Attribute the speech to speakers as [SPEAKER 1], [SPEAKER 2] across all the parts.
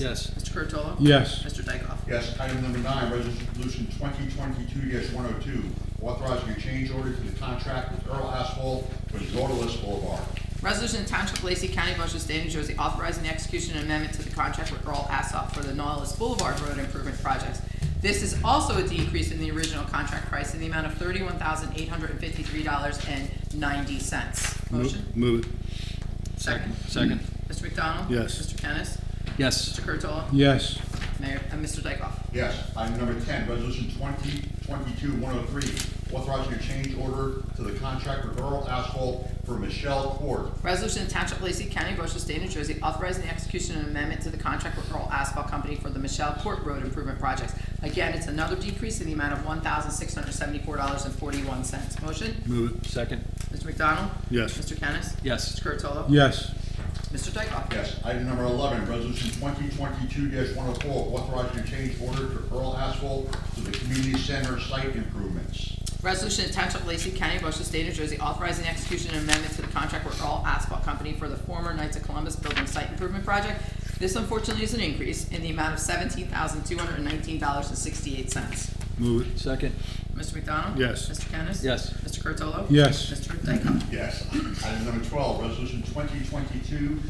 [SPEAKER 1] Yes.
[SPEAKER 2] Mr. Curatolo?
[SPEAKER 3] Yes.
[SPEAKER 2] Mr. Dykoff?
[SPEAKER 4] Yes, item number nine, resolution twenty twenty-two one oh two, authorizing a change order to the contract with Earl Asphalt for Zordalis Boulevard.
[SPEAKER 2] Resolution to Township of Lacey County, Ocean State, New Jersey, authorizing the execution and amendment to the contract with Earl Assoff for the Nautilus Boulevard Road Improvement Projects. This is also a decrease in the original contract price in the amount of thirty-one thousand eight hundred and fifty-three dollars and ninety cents. Motion?
[SPEAKER 3] Move it.
[SPEAKER 2] Second.
[SPEAKER 1] Second.
[SPEAKER 2] Mr. McDonald?
[SPEAKER 3] Yes.
[SPEAKER 2] Mr. Kennis?
[SPEAKER 1] Yes.
[SPEAKER 2] Mr. Curatolo?
[SPEAKER 3] Yes.
[SPEAKER 2] Mayor, uh, Mr. Dykoff?
[SPEAKER 4] Yes, item number ten, resolution twenty twenty-two one oh three, authorizing a change order to the contract with Earl Asphalt for Michelle Court.
[SPEAKER 2] Resolution to Township of Lacey County, Ocean State, New Jersey, authorizing the execution of an amendment to the contract with Earl Asphalt Company for the Michelle Court Road Improvement Projects. Again, it's another decrease in the amount of one thousand six hundred seventy-four dollars and forty-one cents. Motion,
[SPEAKER 1] Move it. Second.
[SPEAKER 2] Mr. McDonald?
[SPEAKER 3] Yes.
[SPEAKER 2] Mr. Kennis?
[SPEAKER 1] Yes.
[SPEAKER 2] Mr. Curatolo?
[SPEAKER 3] Yes.
[SPEAKER 2] Mr. Dykoff?
[SPEAKER 4] Yes, item number eleven, resolution twenty twenty-two one oh four, authorizing a change order to Earl Asphalt for the community center site improvements.
[SPEAKER 2] Resolution to Township of Lacey County, Ocean State, New Jersey, authorizing the execution of an amendment to the contract with Earl Asphalt Company for the former Knights of Columbus Building Site Improvement Project. This unfortunately is an increase in the amount of seventeen thousand two hundred nineteen dollars and sixty-eight cents.
[SPEAKER 3] Move it.
[SPEAKER 1] Second.
[SPEAKER 2] Mr. McDonald?
[SPEAKER 3] Yes.
[SPEAKER 2] Mr. Kennis?
[SPEAKER 1] Yes.
[SPEAKER 2] Mr. Curatolo?
[SPEAKER 3] Yes.
[SPEAKER 2] Mr. Dykoff?
[SPEAKER 4] Yes. Item number twelve, resolution twenty twenty-two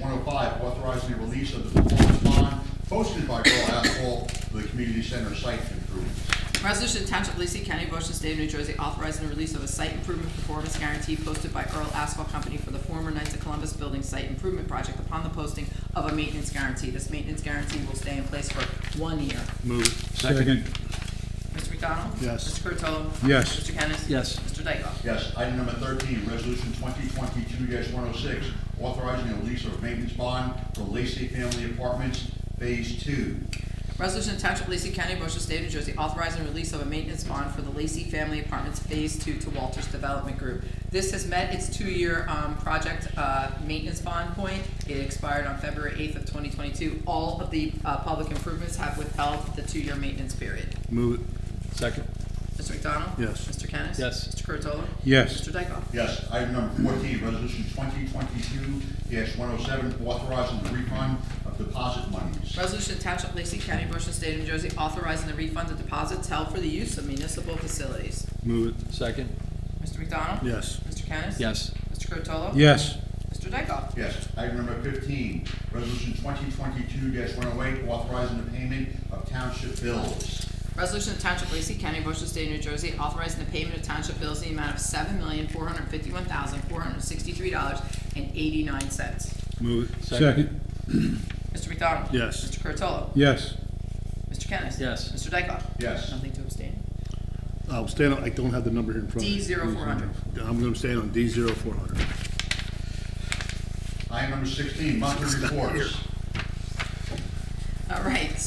[SPEAKER 4] one oh five, authorizing the release of the performance bond posted by Earl Asphalt for the community center site improvements.
[SPEAKER 2] Resolution to Township of Lacey County, Ocean State of New Jersey, authorizing the release of a site improvement performance guarantee posted by Earl Asphalt Company for the former Knights of Columbus Building Site Improvement Project upon the posting of a maintenance guarantee. This maintenance guarantee will stay in place for one year.
[SPEAKER 3] Move it.
[SPEAKER 1] Second.
[SPEAKER 2] Mr. McDonald?
[SPEAKER 3] Yes.
[SPEAKER 2] Mr. Curatolo?
[SPEAKER 3] Yes.
[SPEAKER 2] Mr. Kennis?
[SPEAKER 1] Yes.
[SPEAKER 2] Mr. Dykoff?
[SPEAKER 4] Yes. Item number thirteen, resolution twenty twenty-two one oh six, authorizing the release of maintenance bond for Lacey Family Apartments Phase Two.
[SPEAKER 2] Resolution to Township of Lacey County, Ocean State, New Jersey, authorizing the release of a maintenance bond for the Lacey Family Apartments Phase Two to Walters Development Group. This has met its two-year, um, project, uh, maintenance bond point. It expired on February eighth of twenty twenty-two. All of the, uh, public improvements have withheld the two-year maintenance period.
[SPEAKER 3] Move it.
[SPEAKER 1] Second.
[SPEAKER 2] Mr. McDonald?
[SPEAKER 3] Yes.
[SPEAKER 2] Mr. Kennis?
[SPEAKER 1] Yes.
[SPEAKER 2] Mr. Curatolo?
[SPEAKER 3] Yes.
[SPEAKER 2] Mr. Dykoff?
[SPEAKER 4] Yes. Item number fourteen, resolution twenty twenty-two one oh seven, authorizing the refund of deposit monies.
[SPEAKER 2] Resolution to Township of Lacey County, Ocean State, New Jersey, authorizing the refund of deposits held for the use of municipal facilities.
[SPEAKER 3] Move it.
[SPEAKER 1] Second.
[SPEAKER 2] Mr. McDonald?
[SPEAKER 3] Yes.
[SPEAKER 2] Mr. Kennis?
[SPEAKER 1] Yes.
[SPEAKER 2] Mr. Curatolo?
[SPEAKER 3] Yes.
[SPEAKER 2] Mr. Dykoff?
[SPEAKER 4] Yes. Item number fifteen, resolution twenty twenty-two one oh eight, authorizing the payment of township bills.
[SPEAKER 2] Resolution of Township of Lacey County, Ocean State, New Jersey, authorizing the payment of township bills in the amount of seven million, four hundred fifty-one thousand, four hundred sixty-three dollars and eighty-nine cents.
[SPEAKER 3] Move it.
[SPEAKER 1] Second.
[SPEAKER 2] Mr. McDonald?
[SPEAKER 3] Yes.
[SPEAKER 2] Mr. Curatolo?
[SPEAKER 3] Yes.
[SPEAKER 2] Mr. Kennis?
[SPEAKER 1] Yes.
[SPEAKER 2] Mr. Dykoff?
[SPEAKER 4] Yes.
[SPEAKER 2] Nothing to abstain.
[SPEAKER 5] I'll stand on, I don't have the number here in front of me.
[SPEAKER 2] D zero four hundred.
[SPEAKER 5] I'm gonna stand on D zero four hundred.
[SPEAKER 4] Item number sixteen, monthly reports.
[SPEAKER 2] All right.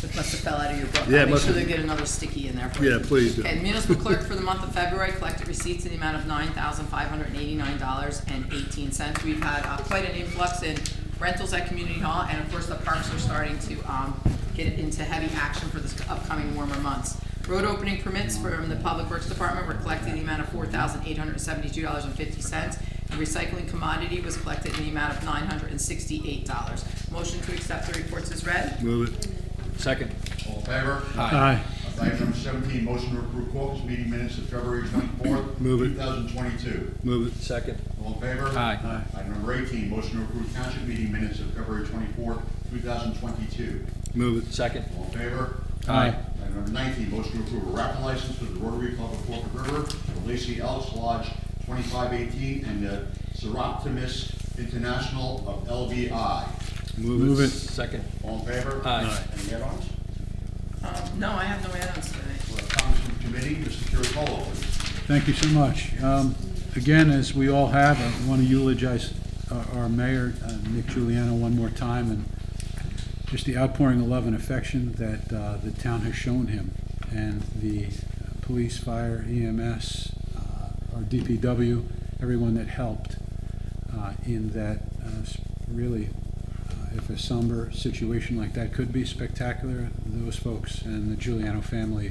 [SPEAKER 2] It must have fell out of your book.
[SPEAKER 5] Yeah, it
[SPEAKER 2] I'll make
[SPEAKER 5] must
[SPEAKER 2] sure they
[SPEAKER 5] have.
[SPEAKER 2] get another sticky in there for you.
[SPEAKER 5] Yeah, please do.
[SPEAKER 2] And municipal clerk for the month of February collected receipts in the amount of nine thousand five hundred and eighty-nine dollars and eighteen cents. We've had uh, quite an influx in rentals at Community Hall, and of course, the parks are starting to um, get into heavy action for this upcoming warmer months. Road opening permits from the Public Works Department were collected in the amount of four thousand eight hundred and seventy-two dollars and fifty cents. And recycling commodity was collected in the amount of nine hundred and sixty-eight dollars. Motion to accept the reports is read.
[SPEAKER 5] Move it.
[SPEAKER 1] Second.
[SPEAKER 4] All in favor?
[SPEAKER 3] Aye.
[SPEAKER 4] Item number seventeen, motion to approve caucus meeting minutes of February twenty-fourth,
[SPEAKER 5] Move it.
[SPEAKER 4] two thousand twenty-two.
[SPEAKER 5] Move it.
[SPEAKER 1] Second.
[SPEAKER 4] All in favor?
[SPEAKER 1] Aye. Aye.
[SPEAKER 4] Item number eighteen, motion to approve township meeting minutes of February twenty-fourth, two thousand twenty-two.
[SPEAKER 5] Move it.
[SPEAKER 1] Second.
[SPEAKER 4] All in favor?
[SPEAKER 1] Aye.
[SPEAKER 4] Item number nineteen, motion to approve a raffle license for the Rotary Club of Forked River, the Lacey Elks Lodge twenty-five eighteen, and the Seroptimus International of LVI.
[SPEAKER 5] Move it.
[SPEAKER 1] Second.
[SPEAKER 4] All in favor?
[SPEAKER 1] Aye.
[SPEAKER 4] Any add-ons?
[SPEAKER 2] Um, No, I have no add-ons tonight.
[SPEAKER 4] For the Comments from committee, Mr. Curatolo, please.
[SPEAKER 3] Thank you so much. Um, Again, as we all have, I want to eulogize uh, our mayor, uh, Nick Giuliano, one more time, and just the outpouring of love and affection that uh, the town has shown him, and the uh, police, fire, EMS, uh, our DPW, everyone that helped uh, in that uh, s- really, uh, if a somber situation like that could be spectacular, those folks and the Giuliano family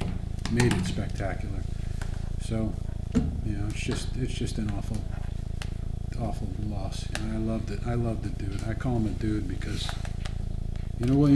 [SPEAKER 3] made it spectacular. So, you know, it's just, it's just an awful, awful loss. And I loved it. I loved the dude. I call him a dude because You know what, you